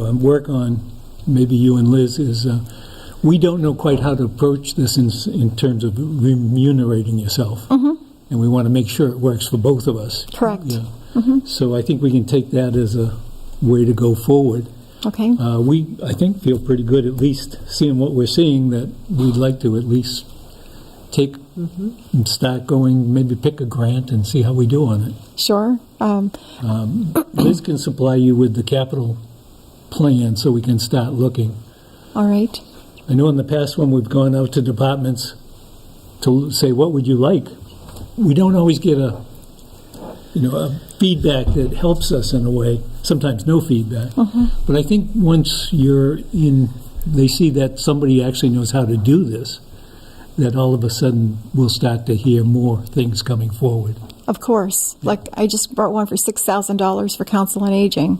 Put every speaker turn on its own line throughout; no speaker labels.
uh, work on, maybe you and Liz, is uh, we don't know quite how to approach this in, s- in terms of remunerating yourself. And we want to make sure it works for both of us.
Correct.
Yeah. So I think we can take that as a way to go forward.
Okay,
Uh, We, I think, feel pretty good, at least seeing what we're seeing, that we'd like to at least take and start going, maybe pick a grant and see how we do on it.
sure. Um,
Liz can supply you with the capital plan so we can start looking.
all right.
I know in the past when we've gone out to departments to say, what would you like? We don't always get a, you know, a feedback that helps us in a way, sometimes no feedback. But I think once you're in, they see that somebody actually knows how to do this, that all of a sudden we'll start to hear more things coming forward.
Of course. Like, I just brought one for $6,000 for council on aging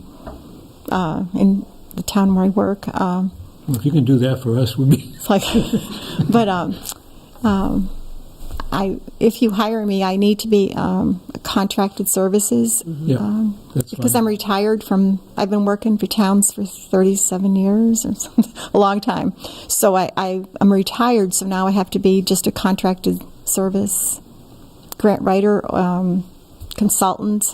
uh, in the town where I work. Um,
If you can do that for us, we'd be,
It's like, but um, um, I if you hire me, I need to be um, contracted services
yeah, that's
because
fine.
I'm retired from. I've been working for towns for 37 years or something, a long time. So I, I I'm retired. So now I have to be just a contracted service grant writer. Um, consultant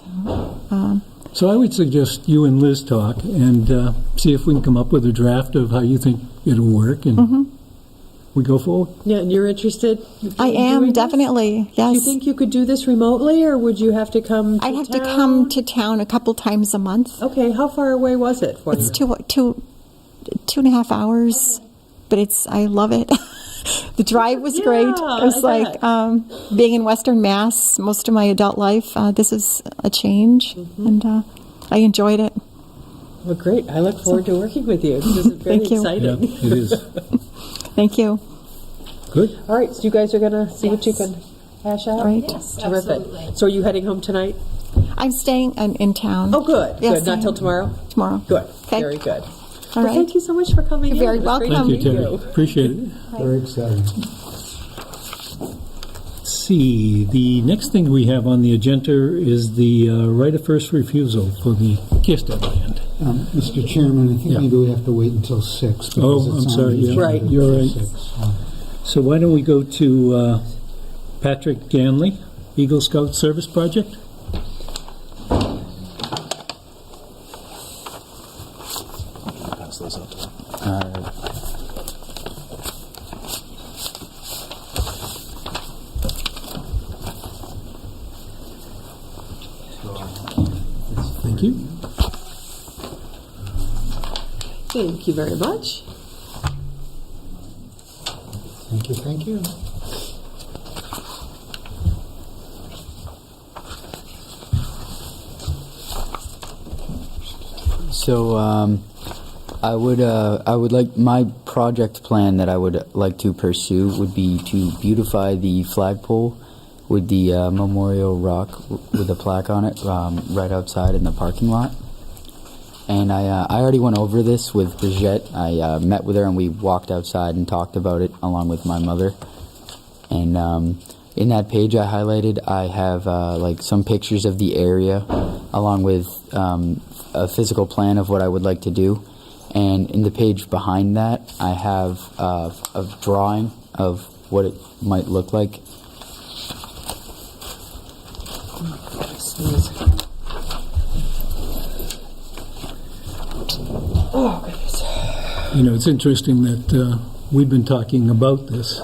So I would suggest you and Liz talk and uh, see if we can come up with a draft of how you think it'll work, and we go forward.
Yeah, and you're interested?
i
in
am
doing this?
definitely yes
Do you think you could do this remotely, or would you have to come to
i'd have to
town?
come to town a couple times a month
Okay, how far away was it for you?
It's two, two, two and a half hours, but it's I love it. the drive was great. It
Yeah,
was
I
like
bet.
um, being in Western Mass most of my adult life. Uh, this is a change,
Mm-hmm.
and uh, I enjoyed it.
Well, great, I look forward to working with you. This is very
Thank you.
Yeah,
exciting.
it is.
Thank you.
Good.
All right, so you guys are gonna see what you can hash out?
Right.
Yes,
Terrific.
absolutely.
So are you heading home tonight?
I'm staying in, in town.
Oh, good,
Yes,
good, not till tomorrow?
tomorrow.
Good,
Okay.
very good.
All
Well,
right.
thank you so much for coming in.
You're very
It was great
welcome.
Thank you,
to meet
Terry. Appreciate it.
Very exciting.
See, the next thing we have on the agenda is the uh, right of first refusal for the Kirstead land.
Um, Mr. Chairman, I think
Yeah.
maybe we have to wait until six. because
Oh,
it's
I'm
on
sorry,
the
yeah.
agenda
Right.
You're
for
right.
six.
So why don't we go to uh, Patrick Ganley, Eagle Scout Service Project? Thank you.
Thank you very much.
Thank you, thank you.
So um, I would uh, I would like my project plan that I would like to pursue would be to beautify the flagpole with the uh, memorial rock w- with a plaque on it um, right outside in the parking lot. And I uh, I already went over this with Brigitte. I uh, met with her and we walked outside and talked about it along with my mother. And um, in that page I highlighted, I have uh, like some pictures of the area, along with um, a physical plan of what I would like to do. And in the page behind that, I have uh, a drawing of what it might look like.
Oh, goodness.
You know, it's interesting that uh, we've been talking about this,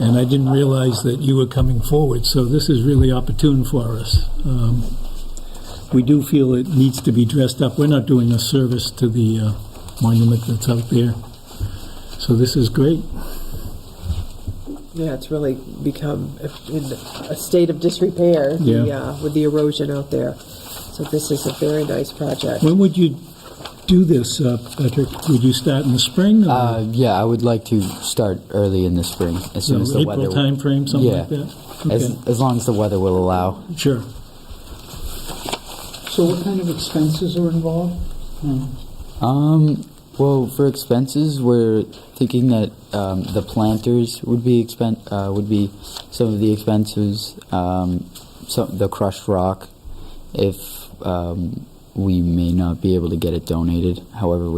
and I didn't realize that you were coming forward, so this is really opportune for us. Um, We do feel it needs to be dressed up. We're not doing a service to the uh, monument that's out there, so this is great.
Yeah, it's really become in a state of disrepair the,
Yeah.
uh, with the erosion out there. So this is a very nice project.
When would you do this, uh, Patrick? Would you start in the spring? or-
Uh, yeah, I would like to start early in the spring, as
So
soon as the
April
weather.
timeframe, something like
Yeah.
that?
as,
Okay,
as long as the weather will allow.
Sure.
So what kind of expenses are involved?
Um, well, for expenses, we're thinking that um, the planters would be expen- uh, would be some of the expenses. Um, some the crushed rock, if um, we may not be able to get it donated. However,